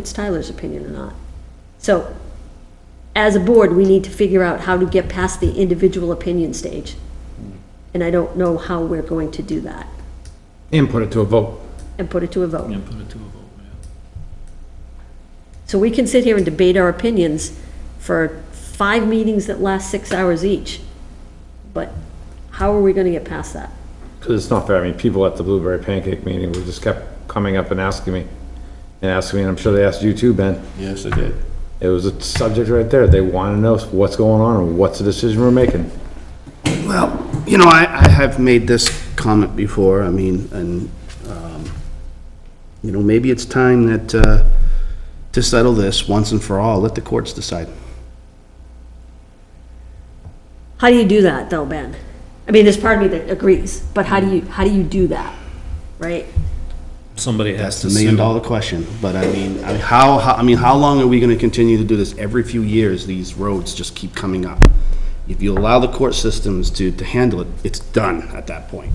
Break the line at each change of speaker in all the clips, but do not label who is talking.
it's Tyler's opinion or not. So, as a board, we need to figure out how to get past the individual opinion stage.
Hmm.
And I don't know how we're going to do that,
and put it to a vote.
and put it to a vote.
And put it to a vote, yeah.
So we can sit here and debate our opinions for five meetings that last six hours each, but how are we gonna get past that?
Because it's not fair, I mean, people at the Blueberry Pancake meeting were just kept coming up and asking me, and asking me, and I'm sure they asked you too, Ben.
Yes, I did.
It was a subject right there, they want to know what's going on and what's the decision we're making.
Well, you know, I, I have made this comment before, I mean, and, um, you know, maybe it's time that, uh, to settle this once and for all, let the courts decide.
How do you do that though, Ben? I mean, there's part of me that agrees, but how do you, how do you do that, right?
Somebody has
That's
to
the
sue.
million dollar question, but I mean, I- how, how, I mean, how long are we gonna continue to do this? Every few years, these roads just keep coming up. If you allow the court systems to, to handle it, it's done at that point.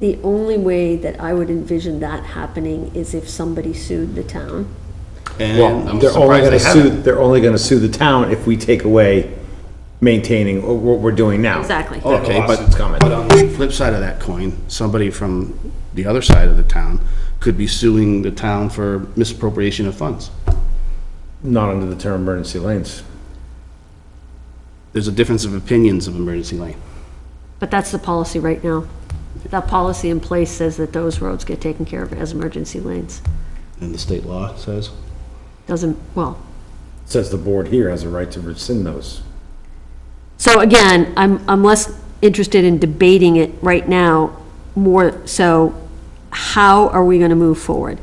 The only way that I would envision that happening is if somebody sued the town.
And
Well,
I'm
they're only
surprised
gonna
they
sue,
haven't.
they're only gonna sue the town if we take away maintaining what we're doing now.
Exactly.
Oh,
Okay, but,
Lawsuit's coming.
but on the flip side of that coin, somebody from the other side of the town could be suing the town for misappropriation of funds.
Not under the term emergency lanes.
There's a difference of opinions of emergency lane.
But that's the policy right now. That policy in place says that those roads get taken care of as emergency lanes.
And the state law says,
Doesn't, well,
Says the board here has a right to rescind those.
so again, I'm, I'm less interested in debating it right now, more so, how are we gonna move forward?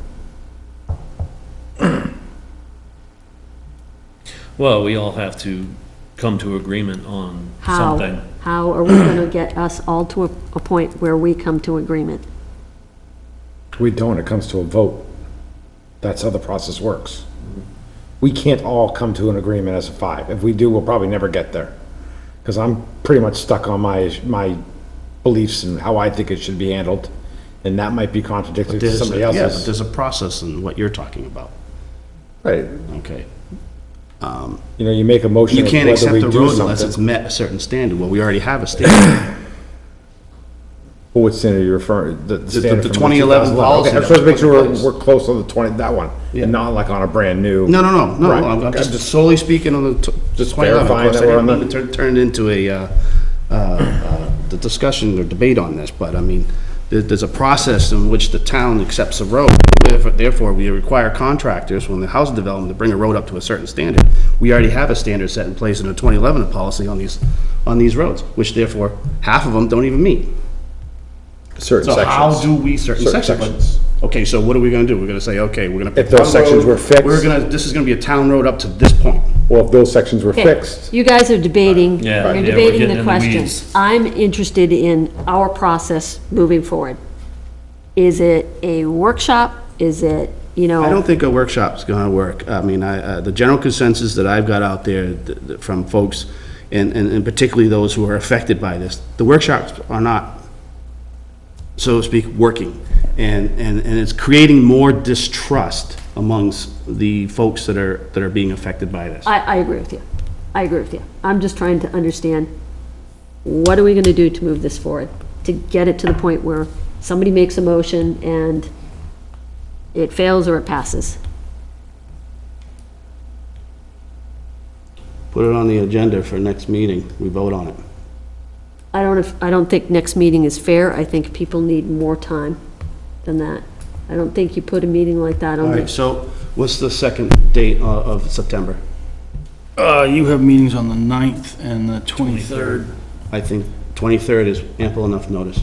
Well, we all have to come to agreement on
How?
something.
How are we gonna get us all to a, a point where we come to agreement?
We don't, it comes to a vote. That's how the process works. We can't all come to an agreement as a five. If we do, we'll probably never get there. Because I'm pretty much stuck on my, my beliefs and how I think it should be handled. And that might be contradictory to
there's,
somebody
yeah, but
else's.
there's a process in what you're talking about,
Right.
okay?
You know, you make a motion
You
of
can't
whether
accept
we
the
do
road unless it's
something.
met a certain standard, well, we already have a standard.
Well, What standard are you referring, the- the standard
the
from the
2011
2011?
policy
Okay, I'm
that
supposed to make
was
sure
put in
we're,
place.
we're close on the 20, that one,
Yeah.
and not like on a brand new.
No, no, no, no,
Right.
I'm I'm
I'm
just
just-
solely speaking on the t- the
Just
2011.
verifying
Of
that we're
course, I
on
didn't
the-
mean to turn- turned into a, uh, uh, uh, the discussion or debate on this, but I mean, there- there's a process in which the town accepts a road. Therefore- Therefore, we require contractors, when the housing development, to bring a road up to a certain standard. We already have a standard set in place in the 2011 policy on these, on these roads, which therefore, half of them don't even meet.
Certain
So how do
sections.
we, certain
Certain
sections?
sections.
but- Okay, so what are we gonna do? We're gonna say, okay, we're gonna. pick
If those
one
sections
road,
were fixed-
We're gonna, this is gonna be a town road up to this point.
Well, if those sections were
Okay,
fixed.
You guys are debating,
Yeah,
you're
yeah, we're
debating
getting in
the
the
question.
weeds.
I'm interested in our process moving forward. Is it a workshop? Is it, you
I
know,
don't think a workshop's gonna work. I mean, I, uh, the general consensus that I've got out there th- th- from folks, and, and and particularly those who are affected by this, the workshops are not, so to speak, working. And, and, and it's creating more distrust amongst the folks that are, that are being affected by this.
I, I agree with you. I agree with you. I'm just trying to understand, what are we gonna do to move this forward? To get it to the point where somebody makes a motion and it fails or it passes?
Put it on the agenda for next meeting, we vote on it.
I don't, if- I don't think next meeting is fair. I think people need more time than that. I don't think you put a meeting like that on
All
the
right, so what's the second date o- of September?
Uh, you have meetings on the 9th and the 23rd.
I think 23rd is ample enough notice.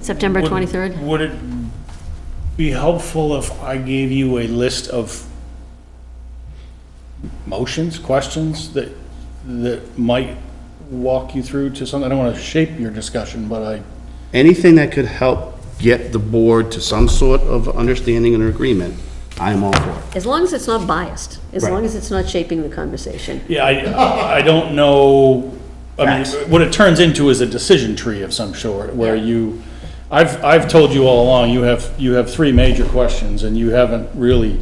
September
Would-
23rd?
Would it be helpful if I gave you a list of motions, questions that, that might walk you through to something? I don't want to shape your discussion, but I,
Anything that could help get the board to some sort of understanding and agreement, I am all for it.
As long as it's not biased, as
Right.
long as it's not shaping the conversation.
yeah, I, I don't know, I mean,
Facts.
what it turns into is a decision tree of some sort, where you, I've, I've told you all along, you have, you have three major questions, and you haven't really